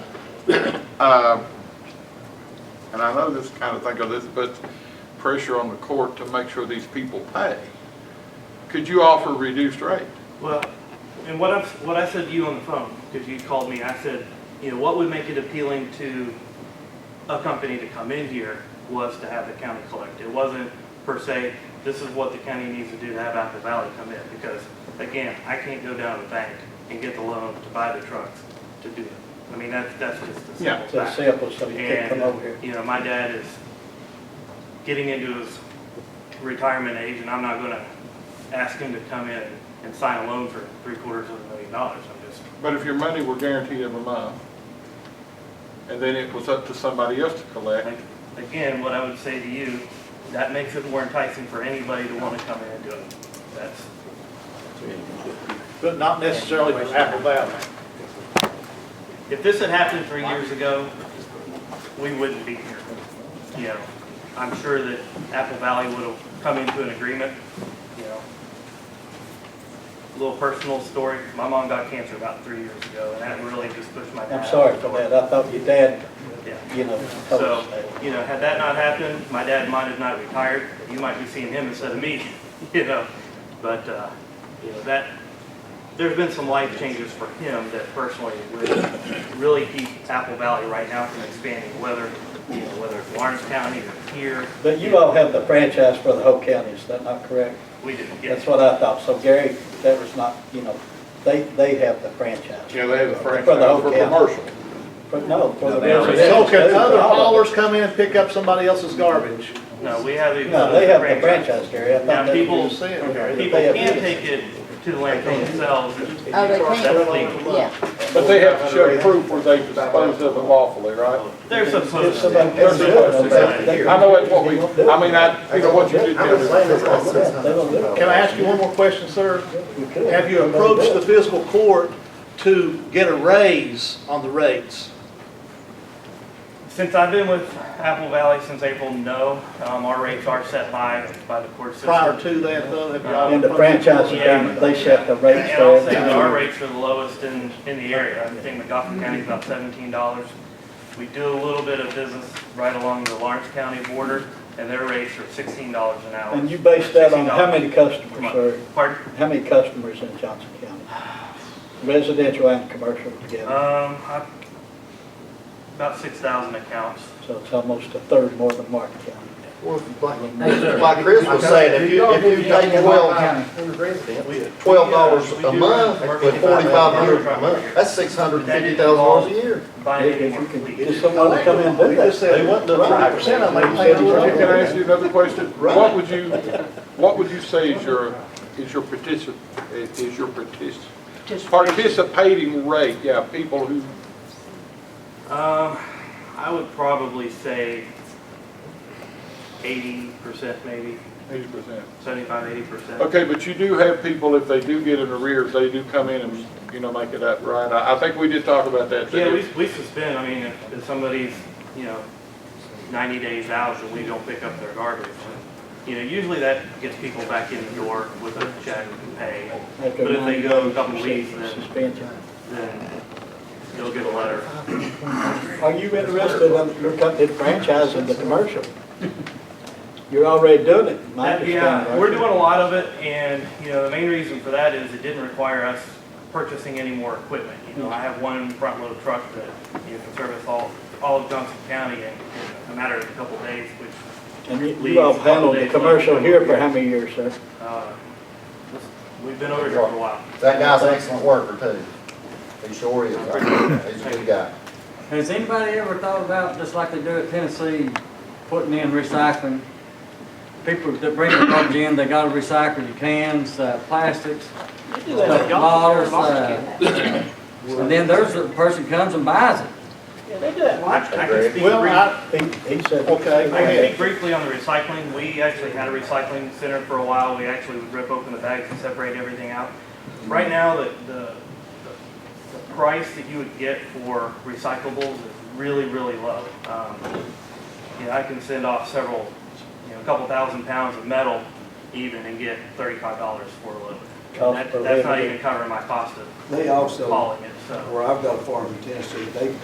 Uh, And I know this kind of thing of this, but pressure on the court to make sure these people pay. Could you offer reduced rate? Well, and what I, what I said to you on the phone, because you called me, I said, you know, what would make it appealing to a company to come in here was to have the county collect. It wasn't per se, this is what the county needs to do to have Apple Valley come in, because again, I can't go down to the bank and get the loan to buy the trucks to do it. I mean, that's, that's just the Yeah, simple It's a fact. sample, so you can come over here. And, you know, my dad is getting into his retirement age, and I'm not gonna ask him to come in and sign a loan for three quarters of a million dollars. I'm just, But if your money were guaranteed every month, and then it was up to somebody else to collect, like, again, what I would say to you, that makes it more enticing for anybody to wanna come in and do it. That's, But not necessarily for Apple Valley. if this had happened three years ago, we wouldn't be here. You know, I'm sure that Apple Valley would have come into an agreement, you know. Little personal story, my mom got cancer about three years ago, and that really just pushed my dad. I'm sorry for that. I thought your dad, Yeah. you know, told So, us that. you know, had that not happened, my dad might have not retired. You might be seeing him instead of me, you know. But, uh, you know, that, there's been some life changes for him that personally would really keep Apple Valley right now from expanding, whether, you know, whether it's Lawrence County or here. But you all have the franchise for the whole county, is that not correct? We did, That's yes. what I thought. So Gary, that was not, you know, they, they have the franchise. you know, they have a franchise For the whole for county. commercial. But no, for the No, they already- residential. So can too, other all of it. haulers come in and pick up somebody else's garbage? No, we have. a- No, they have the franchise, Gary. I thought Now, that- people, You're saying, Okay. people can take it to the landfill themselves. Oh, they That's can't, legal. yeah. But they have to show proof where they disposed of it lawfully, right? There's some. If somebody There's pays a it, question. they'll pay I it. know that's what we, I mean, I, you know, what you did I'm there. just saying is- that's what it is. They don't do it. Can I ask you one more question, sir? You could. Have you approached the fiscal court to get a raise on the rates? Since I've been with Apple Valley since April, no, um, our rates are set by, by the court system. Prior to that, though, have y'all? In the franchise agreement, they set the rates And I'll for say that our everything. rates are the lowest in, in the area. I think McGoffin County is about seventeen dollars. We do a little bit of business right along the Lawrence County border, and their rates are sixteen dollars an hour. And you base that on how $16 many per customers, month. sir? Pardon? How many customers in Johnson County? Residential and commercial together, Um, I- about six thousand accounts. so it's almost a third more than Martin County. Like Chris was saying, if you, if you take twelve, twelve dollars a month with forty-five hundred a month, that's six hundred and fifty thousand dollars a year. Buy If any if more you can fleet. get someone to come in and do They that. said they wouldn't do twenty percent of them, they paid Can it. I ask you another question? What would you, what would you say is your, is your particip, is your partic- participating rate? Yeah, people who, Um, I would probably say eighty percent maybe, eighty percent. seventy-five, eighty percent. Okay, but you do have people, if they do get in arrears, they do come in and, you know, make it up, right? I, I think we did talk about that. Yeah, we, we suspend, I mean, if, if somebody's, you know, ninety days out and we don't pick up their garbage, you know, usually that gets people back in the door with a check and pay, after But if they 90 go a days, couple you weeks, see then- Suspension. then they'll get a letter. Are you interested in your company franchising the commercial? You're already doing it, my That- understanding. Yeah, aren't we're you? doing a lot of it, and, you know, the main reason for that is it didn't require us purchasing any more equipment. You know, I have one front load truck that, you know, can service all, all of Johnson County in in a matter of a couple days, which, And you- you all handled the commercial here for how many years, sir? uh, we've been over here for a while. That guy's an excellent worker too. He sure is. He's a good guy. Has anybody ever thought about, just like they do at Tennessee, putting in recycling? People that bring the garbage in, they gotta recycle your cans, uh, plastics, stuff, bottles, uh, and then there's a person comes and buys it. I I can speak Well, briefly. I, He, he said. Okay, go I can ahead. speak briefly on the recycling. We actually had a recycling center for a while. We actually would rip open the bags and separate everything out. Right now, the, the, the price that you would get for recyclables is really, really low. Um, You know, I can send off several, you know, a couple thousand pounds of metal even and get thirty-five dollars for a load. And Cost that- per That's not liter. even covering my cost of They also, hauling it, so. where I've got a farm in Tennessee, they